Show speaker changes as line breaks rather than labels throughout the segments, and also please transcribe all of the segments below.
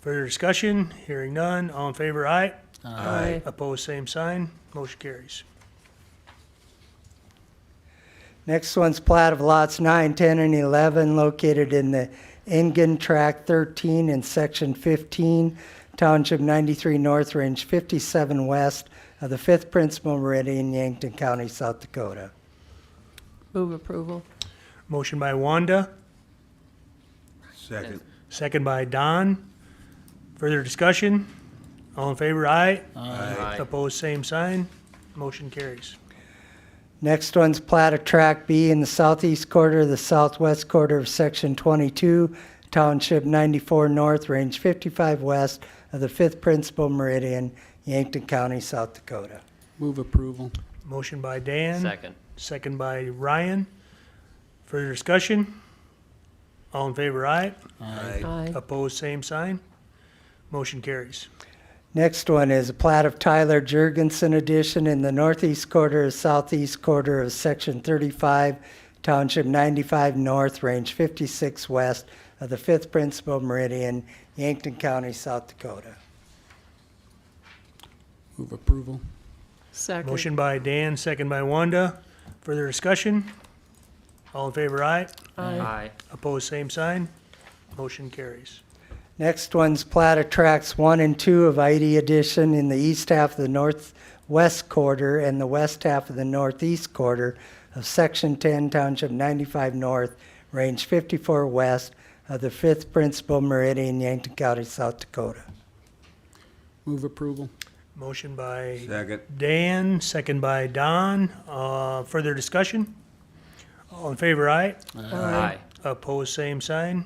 Further discussion? Hearing none. All in favor, aye. Opposed, same sign. Motion carries.
Next one's plat of lots 9, 10, and 11 located in the Engen Tract 13 and Section 15, Township 93 North, Range 57 West of the 5th Principal Meridian, Yankton County, South Dakota.
Move approval.
Motion by Wanda,
Second.
second by Don. Further discussion? All in favor, aye. Opposed, same sign. Motion carries.
Next one's plat of Track B in the southeast quarter of the southwest quarter of Section 22, Township 94 North, Range 55 West of the 5th Principal Meridian, Yankton County, South Dakota.
Move approval.
Motion by Dan.
Second.
Second by Ryan. Further discussion? All in favor, aye.
Aye.
Opposed, same sign. Motion carries.
Next one is a plat of Tyler Jurgensen addition in the northeast quarter, of southeast quarter of Section 35, Township 95 North, Range 56 West of the 5th Principal Meridian, Yankton County, South Dakota.
Move approval.
Second.
Motion by Dan, second by Wanda. Further discussion? All in favor, aye.
Aye.
Opposed, same sign. Motion carries.
Next one's plat of tracks 1 and 2 of ID Edition in the east half of the northwest quarter and the west half of the northeast quarter of Section 10, Township 95 North, Range 54 West of the 5th Principal Meridian, Yankton County, South Dakota.
Move approval.
Motion by
Second.
Dan, second by Don. Uh, Further discussion? All in favor, aye.
Aye.
Opposed, same sign.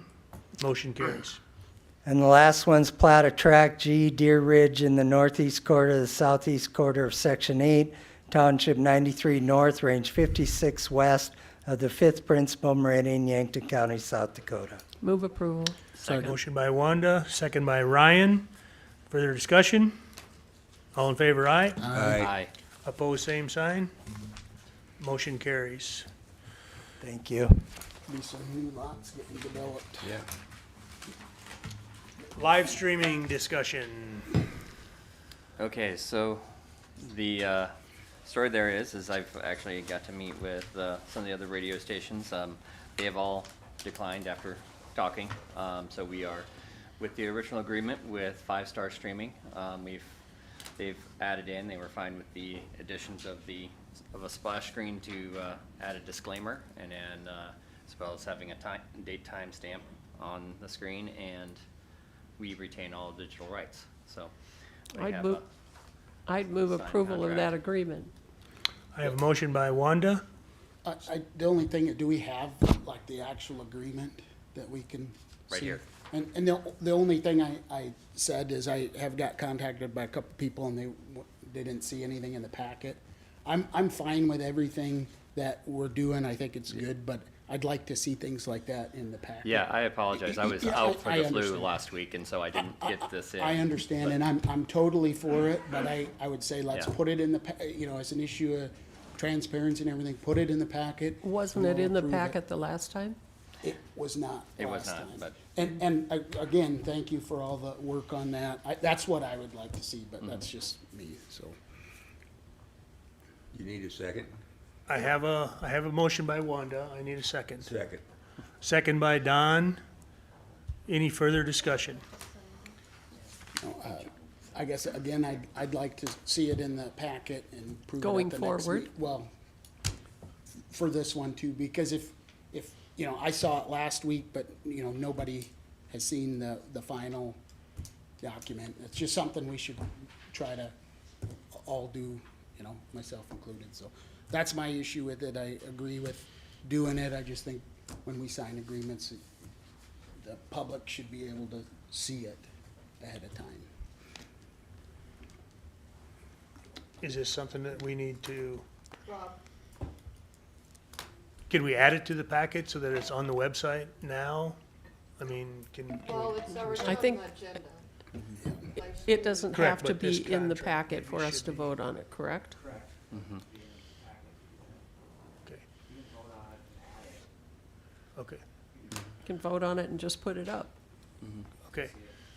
Motion carries.
And the last one's plat of track G Deer Ridge in the northeast quarter, of the southeast quarter of Section 8, Township 93 North, Range 56 West of the 5th Principal Meridian, Yankton County, South Dakota.
Move approval.
Second.
Motion by Wanda, second by Ryan. Further discussion? All in favor, aye.
Aye.
Aye.
Opposed, same sign. Motion carries.
Thank you.
Be some new lots getting developed.
Yeah.
Live streaming discussion.
Okay, so the uh, story there is, is I've actually got to meet with uh, some of the other radio stations. Um, They have all declined after talking, Um, so we are with the original agreement with Five Star Streaming. Um, We've, they've added in, they were fine with the additions of the, of a splash screen to uh, add a disclaimer and then uh, as well as having a time, date time stamp on the screen and we retain all digital rights, so. they
I'd
have
move-
a-
I'd move
Sign
approval of
contract.
that agreement.
I have a motion by Wanda.
I, I, the only thing, do we have like the actual agreement that we can?
Right
see?
here.
And, and the, the only thing I, I said is I have got contacted by a couple people and they, w- they didn't see anything in the packet. I'm, I'm fine with everything that we're doing. I think it's good, but I'd like to see things like that in the packet.
Yeah, I apologize. I was
Yeah, I-
out for
I
the flu
understand.
last week, and so I didn't
I-
get this in.
I understand, and I'm, I'm totally for it, but I, I would say let's
Yeah.
put it in the, pa- you know, as an issue of transparency and everything, put it in the packet.
Wasn't
and
it in the
we'll approve it.
packet the last time?
It was not
It was
last
not,
time.
but-
And, and a- again, thank you for all the work on that. I, that's what I would like to see, but that's just me, so.
You need a second?
I have a, I have a motion by Wanda. I need a second.
Second.
Second by Don. Any further discussion?
Uh, I guess, again, I'd, I'd like to see it in the packet and prove it at
Going
the next
forward?
meet- Well, for this one too, because if, if, you know, I saw it last week, but, you know, nobody has seen the, the final document. It's just something we should try to all do, you know, myself included, so. That's my issue with it. I agree with doing it. I just think when we sign agreements, the public should be able to see it ahead of time.
Is this something that we need to? Can we add it to the packet so that it's on the website now? I mean, can, can
Well,
we-
it's already
I
on
think-
the agenda.
It doesn't
Correct,
have to
but this
be in the
contract
packet for
maybe
us
should
to
be-
vote on it, correct?
okay. Okay,
You Can vote on it and just put it up.
okay.